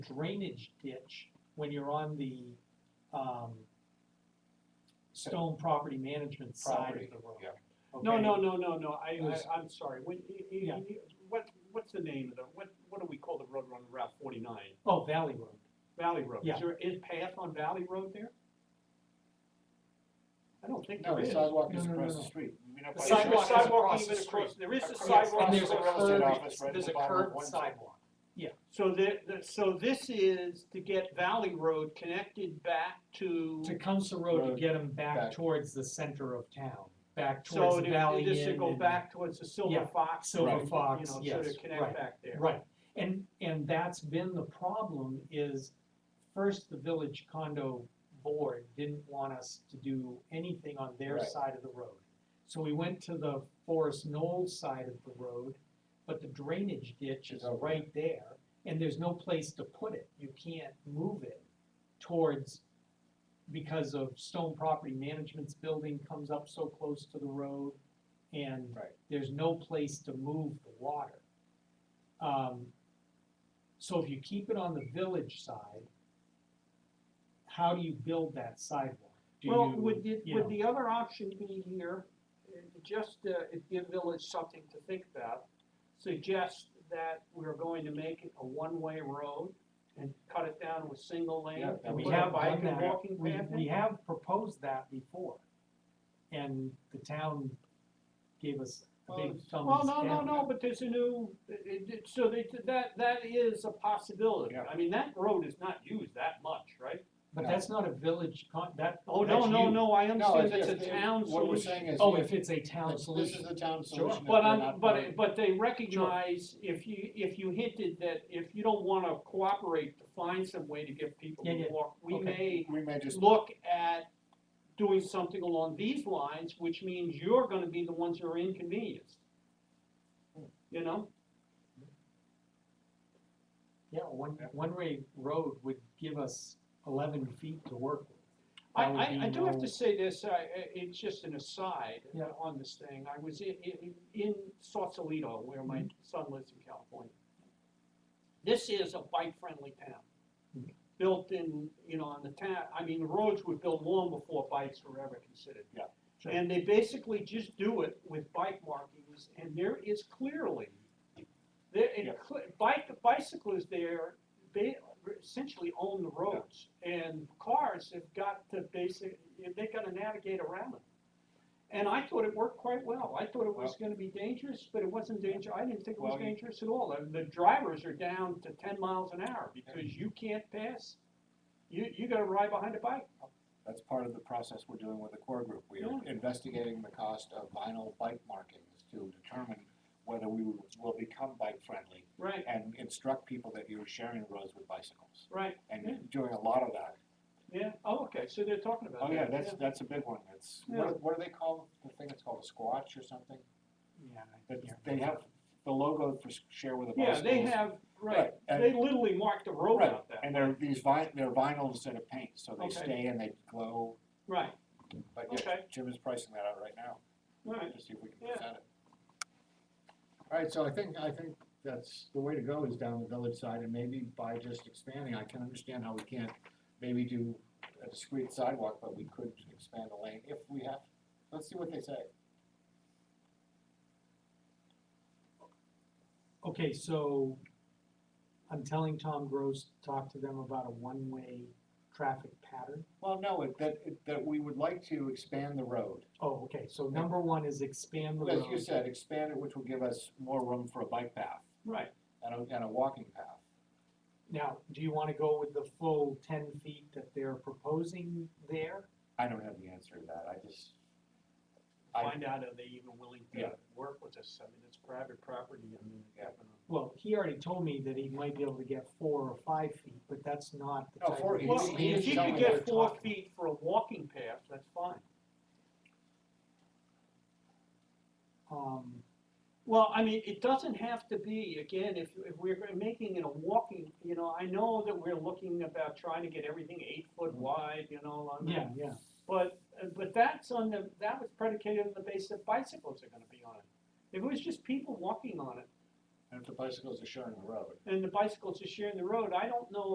drainage ditch when you're on the, um, stone property management side Property, of the road. yeah. No, okay? no, no, no, no, I, Yes. I, I'm sorry, what, y- y- Yeah. y- what, what's the name of the, what, what do we call the road on Route forty-nine? Oh, Valley Road. Valley Road, Yeah. is there, is path on Valley Road there? I don't think No, there the is. sidewalk is No, no, no, across no. the street. We're not The Is by- there a sidewalk is sidewalk across the even across, street. there is a Yes, Across- sidewalk. and there's a Across across- the Oh, road. curved, office right at there's the a bottom of curved one sidewalk. So there, there- so this is to get Valley Road connected back to, To Council Road to Road get them back back. towards the center of town, back so towards the Valley to- Inn. this should go and- back towards the Silver Yeah, Fox. Silver and, you Fox, know, So yes, to right, connect back there. Right, and, and that's been the problem is, first, the village condo board didn't want us to do anything on their Right. side of the road. So we went to the Forest Knoll side of the road, but the drainage ditch is It's over. right there, and there's no place to put it, you can't move it towards, because of Stone Property Management's building comes up so close to the road, and Right. there's no place to move the water. Um, so if you keep it on the village side, how do you build that sidewalk? Do Well, you- would, the- you know, would the other option be here, uh, just uh, if give village something to think about, suggest that we're going to make it a one-way road and cut it down with single lane? Yeah, And and we put a have bike done and that, Walking we, path in? we have proposed that before, and the town gave us a big thumbs down. Well, no, no, no, but there's a new, it- it- so they, that, that is a possibility. Yeah. I mean, that road is not used that much, right? But No. that's not a village con, that, Oh, no, that's no, you. no, I No, understand it's- that's a it's- town solution. What we're saying is. Oh, if- if it's a town this- This is solution, the town Sure. solution. if But we're i not but, part- but they recognize if you, if you hinted that if you don't wanna cooperate to find some way to get people Yeah, to yeah. walk, we Okay. may We may just, look at doing something along these lines, which means you're gonna be the ones who are inconvenienced. You know, yeah, one, Yeah. one-way road would give us eleven feet to work with. I, That would I, I be do have no- to say this, I, I- it's just an aside Yeah. on this thing, I was in, in, in Sausalito, where Mm-hmm. my son lives in California. This is a bike-friendly town. Mhm. built in, you know, on the town, I mean, the roads were built long before bikes were ever considered. Yeah, sure. And they basically just do it with bike markings, and there is clearly, there, and Yeah. cle- bike, bicyclists there, they essentially own the roads. And cars have got to basic, they gotta navigate around them. And I thought it worked quite well, I thought it was gonna be dangerous, but it wasn't danger, I didn't think it was Well, you- dangerous at all. And The drivers are down to ten miles an hour because you can't pass, you, you gotta ride behind a bike. that's part of the process we're doing with the core group. We are Yeah. investigating the cost of vinyl bike markings to determine whether we will become bike friendly Right, and instruct people that you're sharing roads with bicycles. right, Yeah. And doing a lot of that. yeah, oh, okay, so they're talking about that. Oh, yeah, that's, that's a big one. It's, Yeah. what, are- what do they call, the thing it's called a squatch or something? Yeah, I- But yeah. they have the logo for s- share with a bicycle. Yeah, they have, right, Right, and- they literally marked the road Right, out that, And they're these vi- they're vinyl instead of paint, so they Okay. stay and they glow, right, but yeah, Okay. Jim is pricing that out right now, right, to see if we can Yeah. present it. Alright, so I think, I think that's, the way to go is down the village side, and maybe by just expanding, I can understand how we can't Maybe do a discrete sidewalk, but we could expand the lane if we have, let's see what they say. Okay, so I'm telling Tom Gross, to talk to them about a one-way traffic pattern. Well, no, it- that, it- that we would like to expand the road. Oh, okay, so number one is expand the As you road. said, expand it, which will give us more room for a bike path right. and a, and a walking path. Now, do you wanna go with the full ten feet that they're proposing there? I don't have the answer to that, I just, I- Find out are they even willing to Yeah. work with us, I mean, it's private property, I mean. Yeah. Well, he already told me that he might be able to get four or five feet, but that's not the No, Oh, type four- of he- Well, he if expansion you telling could me that we're get four talking. feet for a walking path, that's fine. Um, Well, I mean, it doesn't have to be, again, if, if we're making it a walking, you know, I know that we're looking about trying to get everything eight foot Mm-hmm. wide, you know, on yeah, yeah, But, uh, but that's on the, that was predicated on the basis that bicycles are gonna be on it. If it was just people walking on it, and if the bicycles are sharing the road. and the bicycles are sharing the road, I don't know